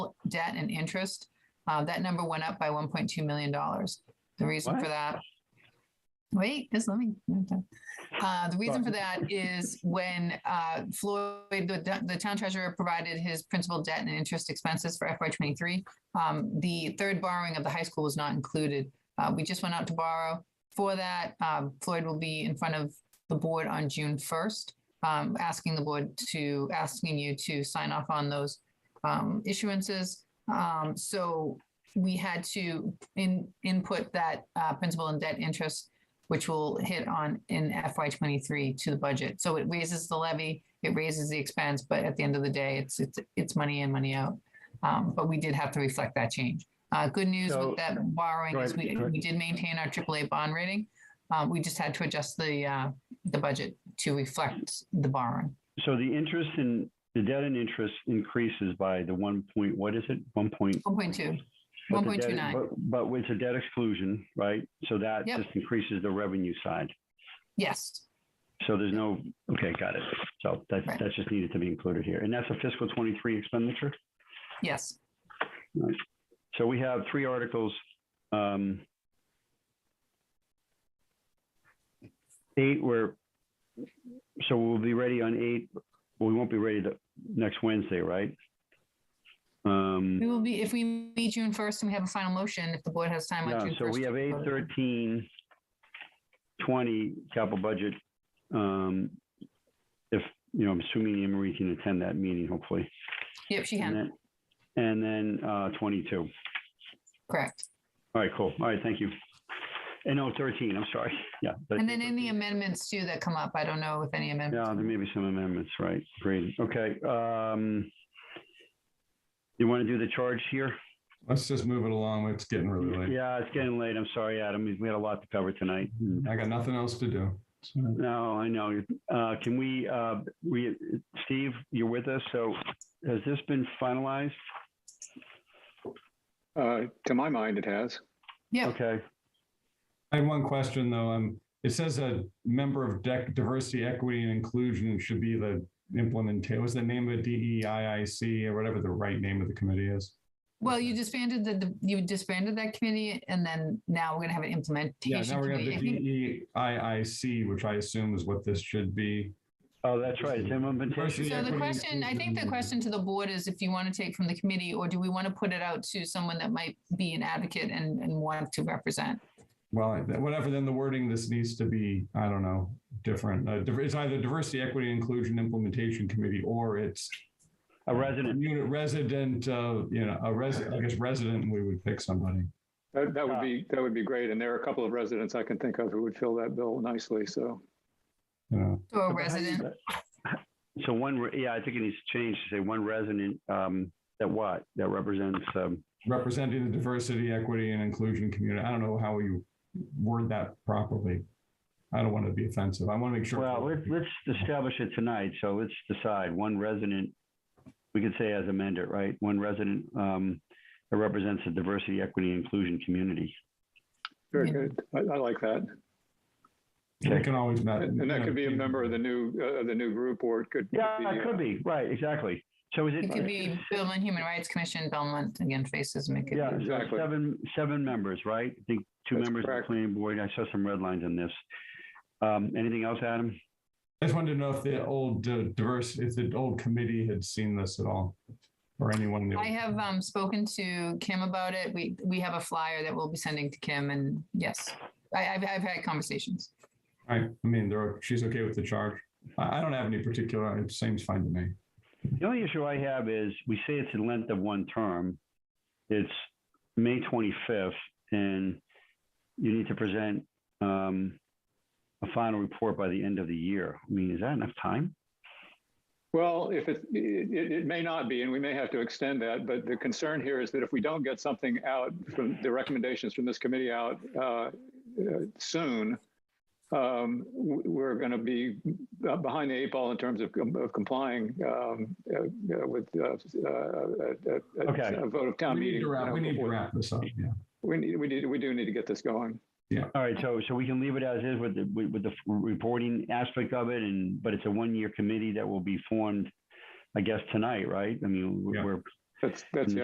debt and interest, uh, that number went up by one point two million dollars. The reason for What? that. Wait, just let me. Uh, the reason for that is when, uh, Floyd, the, the town treasurer provided his principal debt and interest expenses for FY twenty-three. Um, the third borrowing of the high school was not included. Uh, we just went out to borrow. For that, um, Floyd will be in front of the board on June first, um, asking the board to, asking you to sign off on those, um, issuances. Um, so we had to in, input that, uh, principal and debt interest which will hit on in FY twenty-three to the budget. So it raises the levy, it raises the expense, but at the end of the day, it's, it's, it's money in, money out. Um, but we did have to reflect that change. Uh, good news So- with that borrowing Go is ahead, we, go ahead. we did maintain our AAA bond rating. Uh, we just had to adjust the, uh, the budget to reflect the borrowing. So the interest in, the debt and interest increases by the one point, what is it? One point? One point two, but one the point two debt- nine, but- But with the debt exclusion, right? So that Yep. just increases the revenue side. yes, So there's no, okay, got it. So that, Right. that just needed to be included here. And that's a fiscal 23 expenditure? yes. So we have three articles. um, Eight were, so we'll be ready on eight, well, we won't be ready the next Wednesday, right? We Um, will be, if we meet June first and we have a final motion, if the board has time on Yeah, June first. so we have eight, thirteen, twenty capital budget. um, If, you know, I'm assuming Anne Marie can attend that meeting, hopefully. Yep, she And can, then- And then uh, twenty-two. correct. All right, cool. All right, thank you. And oh, 13, I'm sorry. Yeah. And then any 13. amendments too that come up, I don't know if any Yeah, amendments. there may be some amendments, right? Great. Okay. um, You want to do the charge here? Let's just move it along. It's getting really late. Yeah, it's getting late. I'm sorry, Adam. We had a lot to cover tonight. I got nothing else to do. So, No, I know. Uh, Can we, uh, we, Steve, you're with us, so has this been finalized? Uh, to my mind, it has. Yeah, Okay. I have one question though. Um, it says a member of DEC, diversity, equity and inclusion should be the implementation. What's the E name of it? DEIIC or whatever the right name of the committee is? well, you disbanded the- the, you disbanded that committee and then now we're gonna have an Yeah, implementation now we're gonna committee. I have think- the DEIIC, which E I assume is what this should be. Oh, that's right. It's implementation. Yeah, So the equity and question, I think the inclusion. question to the board is if you want to take from the committee or do we want to put it out to someone that might be an advocate and, and want to represent? Well, whatever, then the wording, this needs to be, I don't know, different. Uh, diver- It's either diversity, equity, and inclusion implementation committee, or it's A resident. Unit resident, uh, you know, a resident, I guess resident, we would pick somebody. That, that Uh, would be, that would be great. And there are a couple of residents I can think of who would fill that bill nicely. So You know, To a resident, So one, re- yeah, I think it needs to change to say one resident, um, that what, that represents, um, representing the diversity, equity, and inclusion community. I don't know how you word that properly. I don't want to be offensive. I want to make sure. Well, let's, let's establish it tonight. So let's decide one resident, we could say as amended, right? One resident um, that represents the diversity, equity, and inclusion community. very Yeah. good. I, I like that. We can always. Uh, met- And and that could be a member of the new, uh, of the new group or it could. Yeah, be, uh, it could be, right, exactly. So is it? it could be Belmont Human Rights Commission, Belmont, again, faces make it. Yeah, so Exactly. seven, seven members, right? I think two That's members of the correct. planning board. I saw some red lines on this. Um, Anything else, Adam? I just wanted to know if the old uh, diverse, if the old committee had seen this at all, or anyone. that- I have, um, spoken to Kim about it. We, we have a flyer that we'll be sending to Kim and yes, I, I've, I've had conversations. I, I mean, there, she's okay with the charge. I, I don't have any particular, it seems fine to me. The only issue I have is we say it's the length of one term. It's May 25th and you need to present um, a final report by the end of the year. I mean, is that enough time? Well, if it, it, it- it may not be, and we may have to extend that, but the concern here is that if we don't get something out from the recommendations from this committee out, uh, uh, soon, um, w- we're going to be uh, behind the eight ball in terms of com- of complying, um, uh, uh, with, uh, uh, uh, uh, Okay. A vote of town We need meeting. to you wrap, know, we need to before- wrap this up, yeah. We need, we need, we do need to get this going. All right, so, so we can leave it as is with the, with with the reporting aspect of it and, but it's a one-year committee that will be formed, I guess, tonight, right? I mean, Yeah. we're That's, that's the